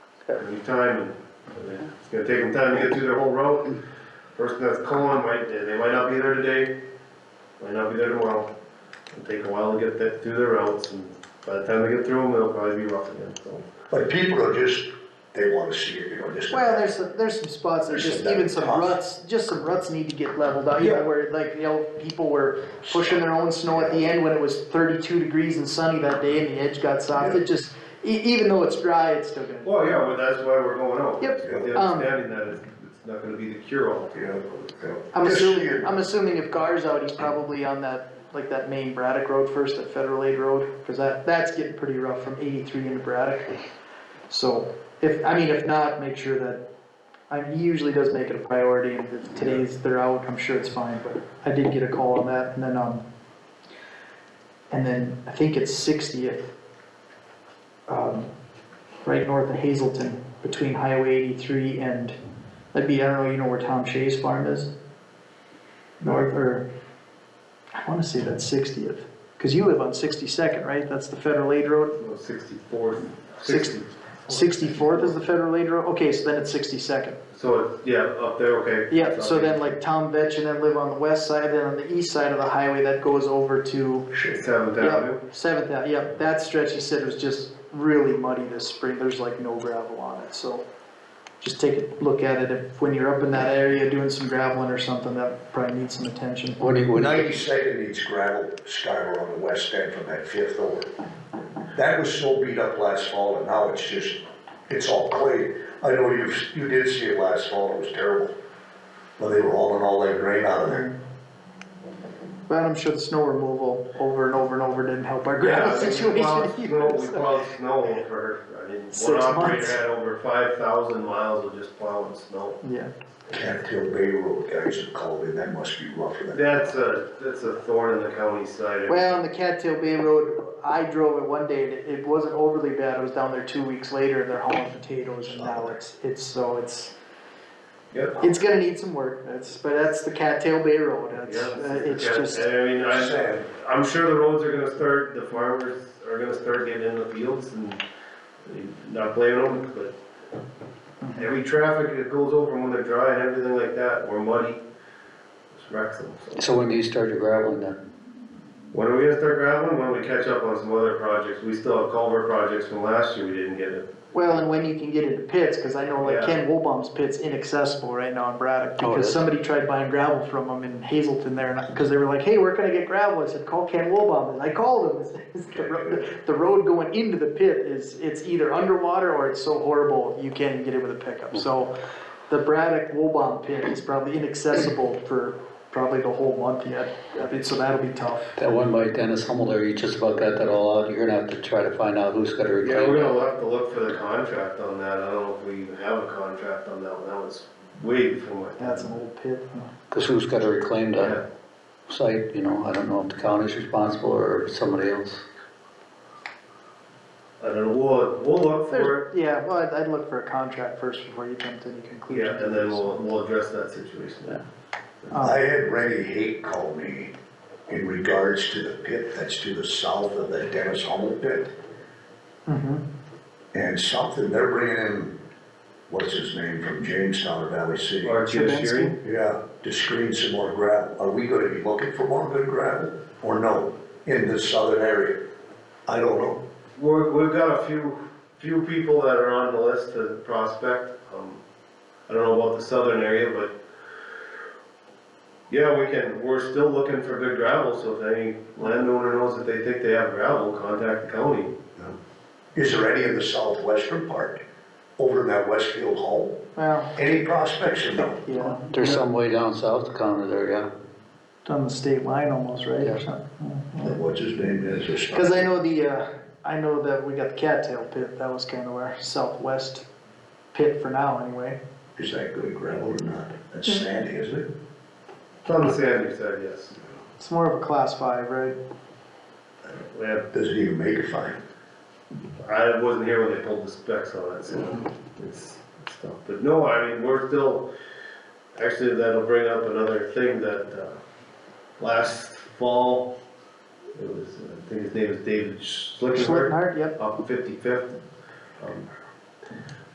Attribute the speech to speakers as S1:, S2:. S1: Any time, and it's gonna take them time to get through their whole route. Person that's calling might, they might not be there today, might not be there tomorrow. It'll take a while to get that, through their routes, and by the time they get through them, it'll probably be rough again, so.
S2: But people are just, they wanna see it, you know, just.
S3: Well, there's, some- there's some spots that
S2: There's
S3: just,
S2: some
S3: even some
S2: tough.
S3: ruts, just some ruts need to get leveled out, you know,
S2: Yeah.
S3: where like, you know, people were pushing their own snow at the end when it was thirty-two degrees and sunny that day and the edge got soft,
S2: Yeah.
S3: it just, e- even though it's dry, it's still gonna.
S1: Well, yeah, well, that's why we're going out.
S3: Yep.
S1: With The
S3: Um,
S1: understanding that it's, it's not gonna be the cure-all.
S2: Yeah, yeah.
S3: I'm
S2: Just see
S3: assuming,
S2: it.
S3: I'm assuming if Gar's out, he's probably on that, like that main Braddock Road first, that Federal Aid Road, cause that, that's getting pretty rough from eighty-three into Braddock. So, if, I mean, if not, make sure that, I, he usually does make it a priority, and if today's, they're out, I'm sure it's fine, but I did get a call on that, and then, um, and then, I think it's sixtieth, um, right north of Hazelton, between Highway eighty-three and, that'd be, I don't know, you know where Tom Shea's farm is? North, or, I wanna say that's sixtieth, cause you live on sixty-second, right? That's the federal aid road?
S1: Well, Sixty-fourth,
S3: Six-
S1: sixty,
S3: Sixty-fourth is the federal aid road, okay, so then it's sixty-second.
S1: so, it's- yeah, up there, okay.
S3: Yeah, so then like Tom Vetch and then live on the west side, then on the east side of the highway that goes over to,
S1: Seventh Avenue.
S3: yep, Seventh, Ave- yep, that stretch he said was just really muddy this spring, there's like no gravel on it, so. Just take a look at it, if, when you're up in that area doing some graveling or something, that probably needs some attention.
S4: What do you, what do you,
S2: Ninety-second needs gravel, skyler on the west end from that fifth over. That was so beat up last fall and now it's just, it's all clay. I know you, you did see it last fall, it was terrible. When they were hauling all that grain out of there.
S3: But I'm sure the snow removal over and over and over didn't help our gravel
S1: Yeah, we
S3: situation
S1: plowed snow-
S3: either,
S1: We
S3: so.
S1: plowed snow for, I mean,
S3: Six
S1: one operator
S3: months.
S1: had over five thousand miles of just plowing snow.
S3: Yeah,
S2: Cattail Bay Road guys have called in, that must be rough for them.
S1: That's a, that's a thorn in the county side.
S3: well, on the Cattail Bay Road, I drove it one day and it, it wasn't overly bad, I was down there two weeks later and they're hauling potatoes and now it's, it's, so it's,
S1: Yep.
S3: it's gonna need some work, that's, but that's the Cattail Bay Road, that's,
S1: Yeah,
S3: uh, it's
S1: yeah,
S3: just,
S1: I mean, I,
S2: Sad.
S1: I'm sure the roads are gonna start, the farmers are gonna start getting in the fields and not blaming them, but every traffic that goes over when they're dry and everything like that, or muddy, just wrecks them, so.
S4: so when do you start your graveling then?
S1: When are we gonna start graveling? When we catch up on some other projects. We still have culvert projects from last year we didn't get it.
S3: well, and when you can get into pits, cause I know like
S1: Yeah.
S3: Ken Woolbaum's pit's inaccessible right now in Braddock,
S4: Oh, it
S3: because
S4: is?
S3: somebody tried buying gravel from him in Hazelton there, and, I- cause they were like, hey, where can I get gravel? I said, call Ken Woolbaum, and I called him, It's- it's the road- the road going into the pit is, it's either underwater or it's so horrible, you can't even get it with a pickup, so the Braddock Woolbaum pit is probably inaccessible for probably the whole month yet, I mean, so that'll be tough.
S4: That one by Dennis Hummel there, you just about got that all out, you're gonna have to try to find out who's gotta
S1: Yeah, we're
S4: reclaim it.
S1: gonna have to look for the contract on that. I don't know if we even have a contract on that one. That was way before my
S3: That's
S1: time.
S3: an old pit.
S4: Cause who's gotta reclaim
S1: Yeah,
S4: that site, you know, I don't know if the county's responsible or somebody else.
S1: I don't know. We'll, we'll look for it.
S3: There's- Yeah, well, I'd, I'd look for a contract first before you come to any conclusion.
S1: Yeah, and then we'll, we'll address that situation.
S3: Uh.
S2: I had Rennie Haight call me in regards to the pit that's to the south of the Dennis Hummel pit.
S3: Mhm.
S2: and something, they're bringing in, what's his name, from Jamestown or Valley City?
S1: Or just
S3: Trubinsky?
S1: hearing.
S2: Yeah, to screen some more gravel. Are we gonna be looking for more good gravel or no, in the southern area? I don't know.
S1: We're, we've got a few, few people that are on the list to prospect, um, I don't know about the southern area, but yeah, we can, we're still looking for good gravel, so if any landowner knows that they think they have gravel, contact the county.
S2: Is there any in the southwestern part, over in that Westfield Hall?
S3: Well,
S2: Any prospects or no?
S3: yeah,
S4: There's some way down south of county there, yeah.
S3: on the state line almost, right,
S4: Yeah.
S3: or something?
S2: What's his name is or something?
S3: Cause I know the, uh, I know that we got the cattail pit, that was kind of our southwest pit for now anyway.
S2: Is that good gravel or not? That's sandy, isn't it?
S1: It's on the sandy side, yes.
S3: It's more of a class five, right?
S1: We have,
S2: Doesn't even make a fine.
S1: I wasn't here when they pulled the specs on it, so it's, it's tough, but no, I mean, we're still, actually, that'll bring up another thing that, uh, last fall, it was, I think his name was David Schlickenberg.
S3: Schlittenhart, yep,
S1: up fifty-fifth. Um,